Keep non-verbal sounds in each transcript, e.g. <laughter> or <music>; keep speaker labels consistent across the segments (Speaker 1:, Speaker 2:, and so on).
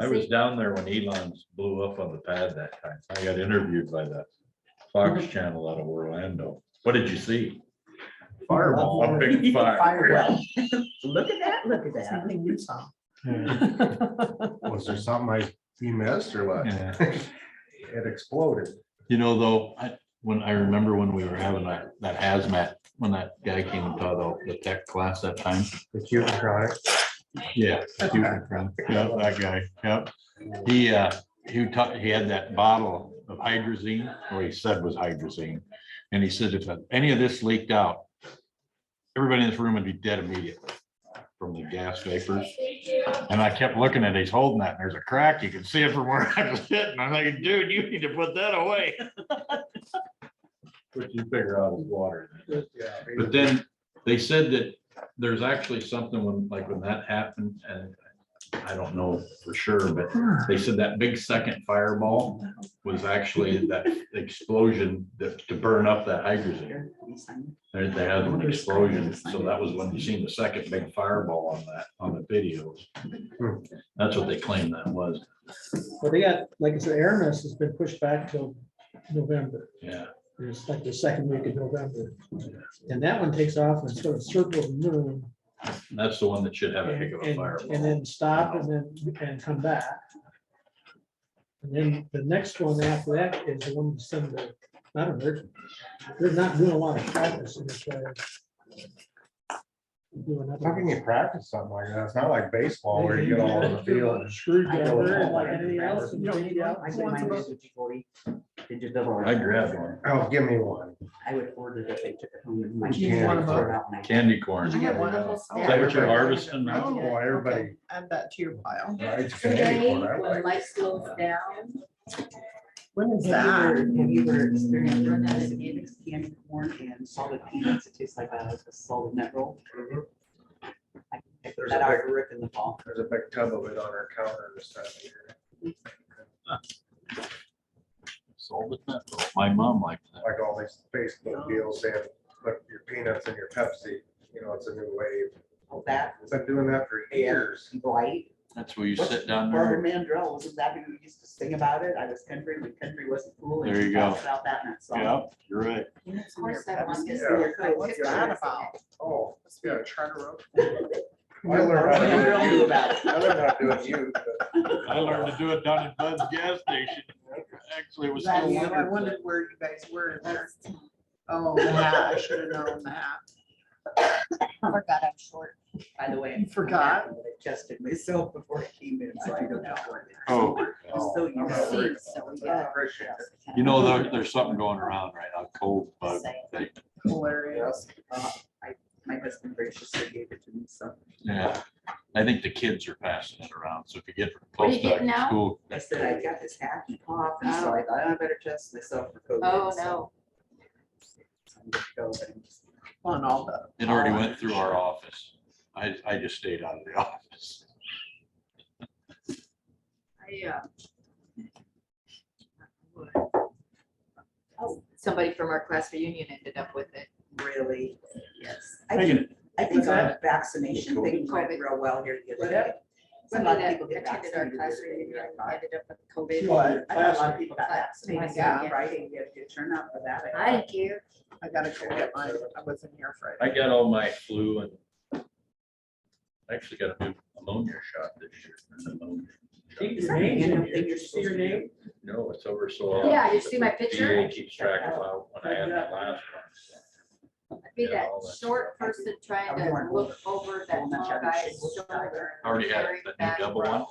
Speaker 1: I was down there when Elon's blew up on the pad that time. I got interviewed by the Fox Channel out of Orlando. What did you see?
Speaker 2: Fireball.
Speaker 1: A big fire. <laughs>
Speaker 3: Firewell. Look at that, look at that.
Speaker 2: Something you saw.
Speaker 4: Was there something I, we missed or what?
Speaker 1: Yeah.
Speaker 4: It exploded.
Speaker 1: You know, though, I, when I remember when we were having that, that hazmat, when that guy came and taught the- the tech class that time.
Speaker 4: The Cuban chronic.
Speaker 1: Yeah. he was a friend. Yeah, that guy, yep. He, uh, he taught, he had that bottle of hydrazine, or he said was hydrazine. And he said if any of this leaked out, everybody in this room would be dead immediately from the gas vapors. And I kept looking at, it, he's holding that, and there's a crack, you can see it from where I was sitting. I'm like, dude, you need to put that away. What you figure out is water. But then they said that there's actually something when, like when that happened and I don't know for sure, but they said that big second fireball was actually that explosion that to burn up that hydrogen. They they had an explosion, so that was when you seen the second big fireball on that, on the videos.
Speaker 4: Hmm.
Speaker 1: That's what they claimed that was,
Speaker 5: But they got, like I said, Aramis has been pushed back till November,
Speaker 1: yeah.
Speaker 5: it's like the second week of November. And that one takes off and sort of circles the moon
Speaker 1: That's the one that should have a heck
Speaker 5: and,
Speaker 1: of a
Speaker 5: and- and
Speaker 1: fireball.
Speaker 5: then stop and then, and come back. And then the next one after that is the one that's in the, I don't know, they're, they're not doing a lot of practice in this way. Doing
Speaker 4: How can
Speaker 5: nothing.
Speaker 4: you practice something like that? It's not like baseball where you get all on the field. and
Speaker 5: Screwdriver, and like anything else. and
Speaker 3: You don't need
Speaker 5: change
Speaker 3: one.
Speaker 5: out.
Speaker 3: I think mine was a G40. It just doesn't work.
Speaker 1: I grabbed one,
Speaker 4: Oh, give me one.
Speaker 3: I would order it if they took it home.
Speaker 2: I need one of
Speaker 4: those.
Speaker 1: candy corn.
Speaker 2: Did you get one of those?
Speaker 1: Is that what you're harvesting now?
Speaker 4: Oh, boy, everybody.
Speaker 2: Add that to your pile.
Speaker 4: rides candy
Speaker 6: Today,
Speaker 4: corn. I
Speaker 6: when
Speaker 4: like
Speaker 6: life slows down,
Speaker 2: When is
Speaker 3: Have
Speaker 2: that?
Speaker 3: you ever- have you ever experienced run out of mixed canned corn and salted peanuts? It tastes like a a salted nut roll. I picked
Speaker 4: There's
Speaker 3: That
Speaker 4: a
Speaker 3: I
Speaker 4: big-
Speaker 3: rip in the fall.
Speaker 4: Mhm. There's a big tub of it on our counter this time of year.
Speaker 1: Sold it that, my mom liked that.
Speaker 4: Like all these Facebook deals saying, put your peanuts in your Pepsi. You know, it's a new wave.
Speaker 3: Oh, that
Speaker 4: It's been doing that for years.
Speaker 3: blight.
Speaker 1: That's where you
Speaker 3: What's-
Speaker 1: sit down
Speaker 3: Barbara
Speaker 1: there.
Speaker 3: Mandrell, wasn't that who used to sing about it? I was country, when country wasn't cool. and
Speaker 1: There
Speaker 3: she
Speaker 1: you go.
Speaker 3: talks About that in that song.
Speaker 1: Yeah, you're right.
Speaker 6: of course, that one is.
Speaker 4: Yeah.
Speaker 2: What's that about?
Speaker 4: Oh,
Speaker 2: Must be a charter oak. <laughs>
Speaker 3: <laughs>
Speaker 4: I learned how
Speaker 3: Barbara Mandrell
Speaker 4: to do
Speaker 3: knew
Speaker 4: it.
Speaker 3: about it.
Speaker 4: I learned how to do it, you.
Speaker 1: I learned to do it down at Bud's gas station. Actually, it was
Speaker 2: That
Speaker 1: still
Speaker 2: is, I
Speaker 1: winter.
Speaker 2: wondered where you guys were in there. Oh, yeah, I should have known that.
Speaker 6: Forgot I'm short.
Speaker 3: By the way.
Speaker 2: You
Speaker 3: I
Speaker 2: forgot?
Speaker 3: Adjusted myself before I came in, so I don't know. where it is.
Speaker 1: Oh.
Speaker 3: I'm so
Speaker 4: Oh, I'm
Speaker 3: used
Speaker 4: not
Speaker 3: to
Speaker 4: worried
Speaker 3: it.
Speaker 6: Seems
Speaker 4: about
Speaker 6: so,
Speaker 4: it.
Speaker 6: yeah.
Speaker 4: Appreciate it.
Speaker 1: You know, there, there's something going around right now, cold bug.
Speaker 6: Same.
Speaker 1: thing.
Speaker 2: Hilarious.
Speaker 3: Uh, I- My husband graciously gave it to me, so
Speaker 1: Yeah, I think the kids are passing it around, so if you get close
Speaker 6: getting
Speaker 1: to
Speaker 6: now?
Speaker 1: school.
Speaker 3: I said I got this hacky cough, and so I thought "Oh, I better test myself for COVID.
Speaker 6: Oh,
Speaker 3: so
Speaker 6: no.
Speaker 3: I'm gonna go, but I'm just-
Speaker 2: On all the.
Speaker 1: It already went through our office. I, I just stayed out of the <laughs> office.
Speaker 6: I, uh, oh, Somebody from our class reunion ended up with it.
Speaker 3: Really, yes. I think,
Speaker 1: Megan,
Speaker 3: I think
Speaker 2: What's
Speaker 3: our
Speaker 2: that?
Speaker 3: vaccination thing went
Speaker 6: COVID.
Speaker 3: real well here the other
Speaker 2: What?
Speaker 3: day. A lot
Speaker 6: Somebody
Speaker 3: of
Speaker 6: that
Speaker 3: people get
Speaker 6: attended our
Speaker 3: vaccinated
Speaker 6: class
Speaker 3: this
Speaker 6: reunion
Speaker 3: year, I thought.
Speaker 6: ended up with COVID.
Speaker 2: What?
Speaker 3: I know a lot of people got vaccinated,
Speaker 6: My
Speaker 3: yeah,
Speaker 6: God.
Speaker 3: right, and you had a good turnout for that.
Speaker 6: I didn't care.
Speaker 2: I gotta go get mine. I wasn't here Friday.
Speaker 1: I got all my flu and I actually got a new pneumonia shot this year. pneumonia shot.
Speaker 5: Keep
Speaker 3: Is that the annual thing you're
Speaker 5: See
Speaker 3: supposed
Speaker 5: your
Speaker 3: to do?
Speaker 5: name?
Speaker 1: No, it's over so. often,
Speaker 6: Yeah, you
Speaker 1: but
Speaker 6: see my
Speaker 1: the
Speaker 6: picture?
Speaker 1: DA keeps track of how- when I had my last one.
Speaker 6: I'd Be
Speaker 1: Yeah,
Speaker 6: that
Speaker 1: all that
Speaker 6: short
Speaker 3: stuff.
Speaker 6: person trying to look over that tall guy's shoulder. and
Speaker 1: Already had
Speaker 6: carry
Speaker 1: it, but new
Speaker 6: back
Speaker 1: double
Speaker 6: row.
Speaker 1: one.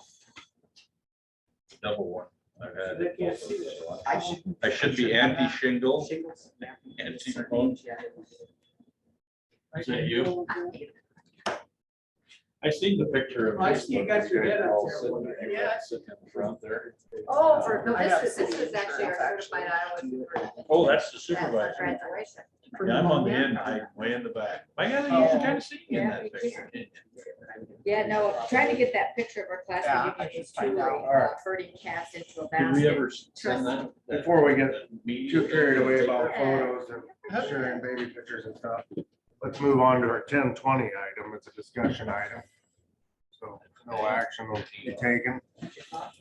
Speaker 1: Double one. I've had
Speaker 5: They can't see
Speaker 1: it.
Speaker 3: I should.
Speaker 1: I should be anti-shingle.
Speaker 3: Shingles. yeah.
Speaker 1: Anti-remote.
Speaker 3: Yeah.
Speaker 1: Is that you?
Speaker 6: I-
Speaker 1: I seen the picture of.
Speaker 2: I see you got your head up
Speaker 1: All
Speaker 2: there.
Speaker 1: sitting-
Speaker 2: Yeah.
Speaker 1: Sitting in front there.
Speaker 6: Oh, for, no,
Speaker 2: Um, I
Speaker 6: this
Speaker 2: got
Speaker 6: was, this
Speaker 2: full
Speaker 6: was actually our
Speaker 2: insurance,
Speaker 6: certified
Speaker 3: actually.
Speaker 6: Iowa.
Speaker 1: Oh, that's the
Speaker 6: That's our
Speaker 1: supervisor.
Speaker 6: graduation.
Speaker 1: Yeah, I'm on the end, I way in the back. I gotta,
Speaker 2: Oh.
Speaker 1: kind of see you in
Speaker 6: Yeah,
Speaker 1: that
Speaker 6: you
Speaker 1: picture.
Speaker 6: Yeah, no, trying to get that picture of our class
Speaker 2: Yeah,
Speaker 6: reunion
Speaker 2: I should
Speaker 6: is truly
Speaker 2: find out.
Speaker 4: Alright.
Speaker 6: uh, hurting cats into a
Speaker 1: Did we
Speaker 6: basket.
Speaker 1: ever send that?
Speaker 4: Before we get
Speaker 1: Me?
Speaker 4: too carried away about photos and sharing baby pictures and stuff. Let's move on to our ten twenty item. It's a discussion item. So no action will be taken.
Speaker 3: Uh,